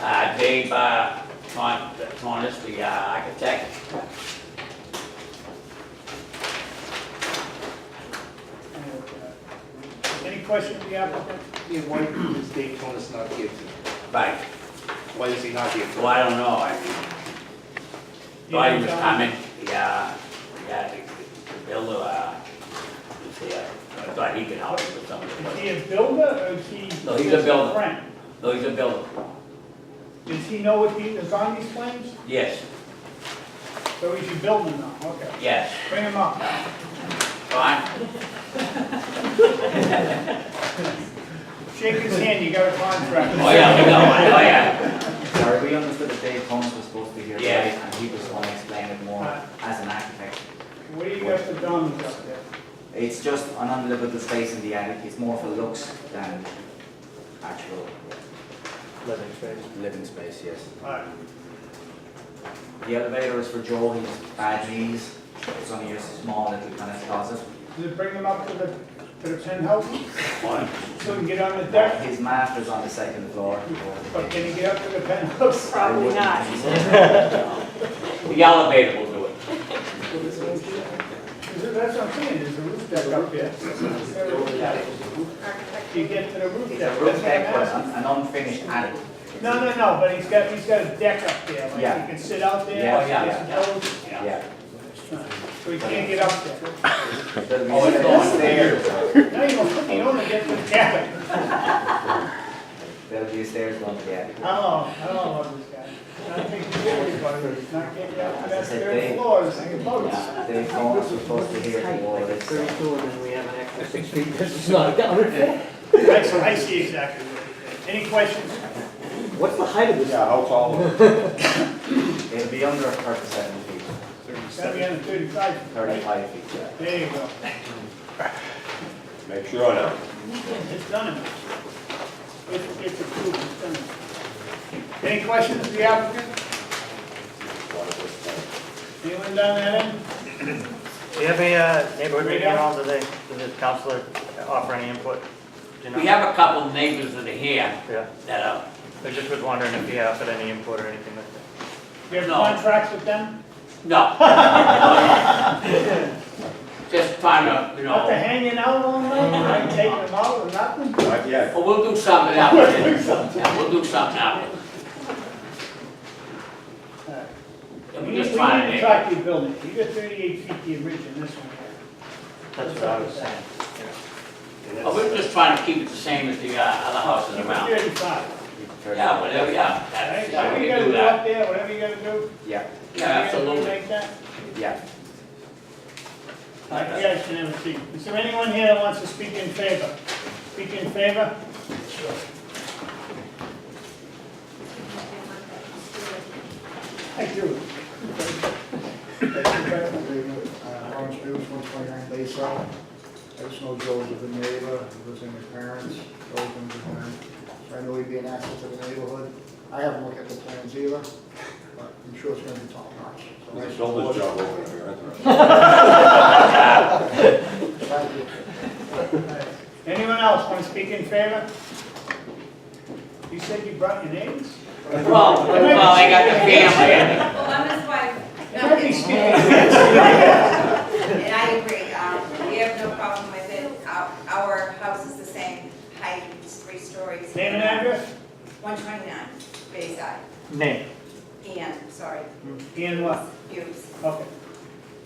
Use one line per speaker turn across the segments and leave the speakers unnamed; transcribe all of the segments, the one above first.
uh, gave, uh, Con, Conus, the uh, architect.
uh, Any questions, the applicant?
Yeah, why is Dave Tonis not here? tonight?
Right,
Why is he not here?
so I don't know, I mean, thought he uh, was coming, yeah, yeah, the the builder, uh, was there. I thought he could help us with some of
Is
the,
he a builder or is he?
No, he's a
just
builder.
friend?
no, Oh, he's a builder,
Does he know what he is on these plans?
yes,
So is he building now? Okay.
yes,
Bring him up.
Oh,
Con,
Shake his hand, you got a contract.
oh yeah, we know, oh yeah,
Sorry, we understood that Dave Holmes was supposed to be here
Yeah.
today, and he was going to explain it more as an architect.
What do you got for dormers up there?
It's just an unlivable space in the attic, it's more for looks than actual
Living space.
living space, yes.
All right.
The elevator is for Joel, he's bad knees, it's only a small little kind of closet.
Does it bring him up to the, to the penthouse
Con,
so he can get on the deck?
His master's on the second floor.
But can he get up to the penthouse?
Probably not.
the elevator will do it.
Is it- That's what I'm saying, there's a roof deck up there. Is there a roof deck?
Architect.
You get to the roof deck. that's
It's a roof
what I'm
deck, but
asking.
an an unfinished attic.
No, no, no, but he's got, he's got a deck up there, like
Yeah.
he can sit out there.
Yeah,
yeah,
there's
yeah.
no-
Yeah.
So he can't get up there.
There'll be
Oh, it's
steps
going
there.
Now you don't, you don't wanna get to the cabin.
There'll be stairs going to the attic.
I don't know, I don't know about this guy. I think he's worried about it, he's not getting up to that
As I said,
third
they-
floor, it's like a boat.
Yeah, Dave Holmes was supposed to be here for all this.
and then we have an extra six feet, this is not accounted
I, I see exactly what you're saying. Any questions?
for. What's the height of this?
Yeah, how tall?
It'll be under thirty-seven feet,
Gotta be on the thirty-five.
thirty-five feet, yeah.
There you go,
Make sure now.
it's done. It's, it's approved, it's done. Any questions, the applicant? Anyone down that end?
Do you have any uh, neighborhood meeting at all? Do they, does the counselor offer any input? Do you know?
We have a couple of neighbors that are here
Yeah,
that are,
I just was wondering if you offered any input or anything like that.
You have
No.
contracts with them?
no. Just trying to, you
After
know,
hanging out all night, like taking them out or nothing?
Yeah,
well, we'll do something out Yeah, we'll do something out
We
We're
need, we need
just
to
trying to.
track your building, you got thirty-eight feet the original, this one here.
That's what I was saying.
Oh, We're just trying to keep it the same as the uh, other houses around.
Thirty-five.
Yeah, whatever, yeah, that's, yeah,
Whatever
we
you
can
gotta
do
do up
that.
there, whatever you gotta do.
Yeah,
Yeah,
you gotta do
absolutely.
Like that.
yeah.
All right, You guys can have a seat. Is there anyone here that wants to speak in favor? Speak in favor? I do.
Uh, Orange View, one twenty-nine Bayside. I just know Joe's a good neighbor, he lives in his parents, Joe's been good man. So I know he'd be an asset to the neighborhood. I haven't looked at the plans either, but I'm sure it's gonna be top notch. So I
It's a shoulder's
support it.
job over there, isn't it?
Thank you.
Anyone else want to speak in favor? You said you brought your names?
Well, well, I got the family.
Well, I'm his wife.
You might be speaking in
And I agree, um, we have no problem with it. Our, our house is the same height, it's three stories.
Name and address?
One twenty-nine, Bayside.
Name?
Ian, sorry,
Ian what?
Hughes.
Okay,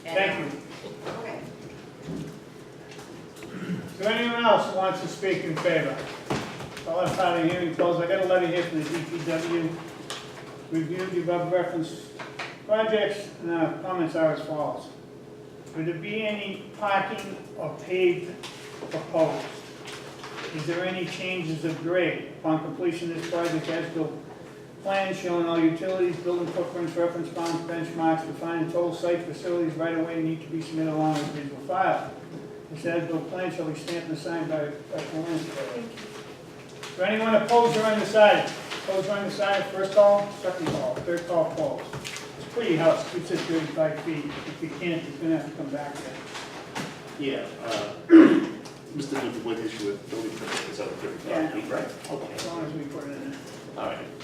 And,
thank you.
Okay.
Is there anyone else who wants to speak in favor? I'll let out of hearing closed. I got a letter here from the DPW. Reviewed the above reference projects, and our comments are as follows. Would there be any parking or paved proposed? Is there any changes of grade? Upon completion of this project, as built plan showing all utilities, building footprints, reference bounds, benchmarks, defining total site facilities right away need to be submitted along with visual file. This as-built plan shall be stamped and signed by, by the land surveyor. Is there anyone opposed or undecided? Opposed or undecided, first call, second call, third call, polls. It's a pretty house, keeps it thirty-five feet. If you can't, it's gonna have to come back there.
Yeah, uh, Mr. Duke, what issue with building permit is out of
Yeah.
thirty-five feet, right? Okay,
As long as we put it in there.
all right.